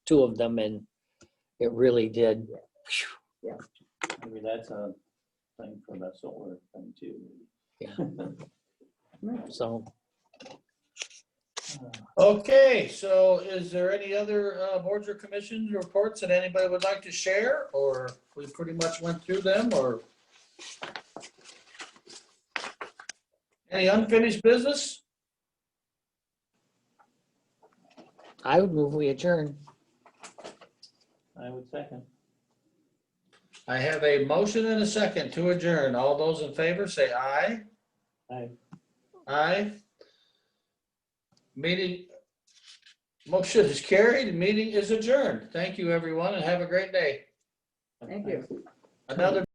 two of them and it really did. Maybe that's a thing for the solar thing too. So Okay, so is there any other uh, boards or commissions reports that anybody would like to share? Or we pretty much went through them or? Any unfinished business? I would move we adjourn. I would second. I have a motion and a second to adjourn. All those in favor say aye. Aye. Aye. Meeting, motion is carried, meeting is adjourned. Thank you, everyone, and have a great day. Thank you. Another